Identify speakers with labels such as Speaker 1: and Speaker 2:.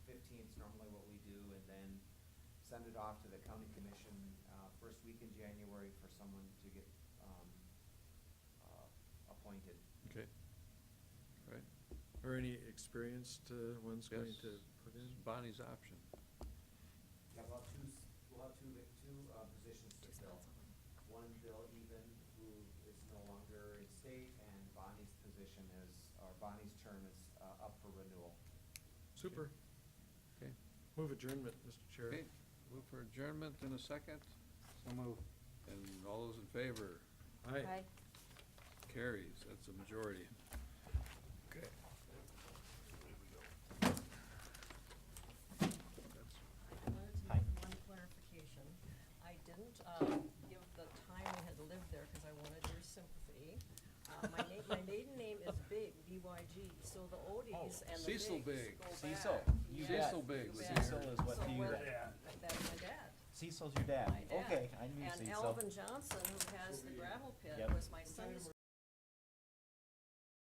Speaker 1: send it off to the county commission, uh, first week in January for someone to get, um, uh, appointed.
Speaker 2: Okay. All right.
Speaker 3: Or any experienced uh, ones going
Speaker 2: Yes.
Speaker 3: to put in?
Speaker 2: It's Bonnie's option.
Speaker 1: Yeah, we'll have two, s- we'll have two, vac- two, uh, positions to fill. One Bill Even, who is no longer in state, and Bonnie's position is, or Bonnie's term is, uh, up for renewal.
Speaker 3: Super.
Speaker 2: Okay.
Speaker 3: Move adjournment, Mr. Chair.
Speaker 2: Okay, move for adjournment in a second.
Speaker 4: So move.
Speaker 2: And all those in favor,
Speaker 3: Aye.
Speaker 5: Aye.
Speaker 2: carries. That's a majority. Okay.
Speaker 6: I wanted to make one clarification. I didn't um, give the time I had lived there because I wanted your sympathy. Uh, My na- my maiden name is Big, B-Y-G, so the Odies and
Speaker 2: Oh,
Speaker 6: the Bigs
Speaker 2: Cecil
Speaker 6: go
Speaker 2: Big.
Speaker 6: back.
Speaker 4: Cecil. You
Speaker 6: Yes,
Speaker 2: Cecil Big
Speaker 6: go
Speaker 2: was
Speaker 6: back.
Speaker 2: here.
Speaker 4: Cecil is what
Speaker 6: So
Speaker 4: you-
Speaker 6: when-
Speaker 4: Yeah.
Speaker 6: That's my dad.
Speaker 4: Cecil's your dad?
Speaker 6: My dad.
Speaker 4: Okay, I knew
Speaker 6: And
Speaker 4: Cecil.
Speaker 6: Alvin Johnson, who has the gravel pit,
Speaker 4: Yep.
Speaker 6: was my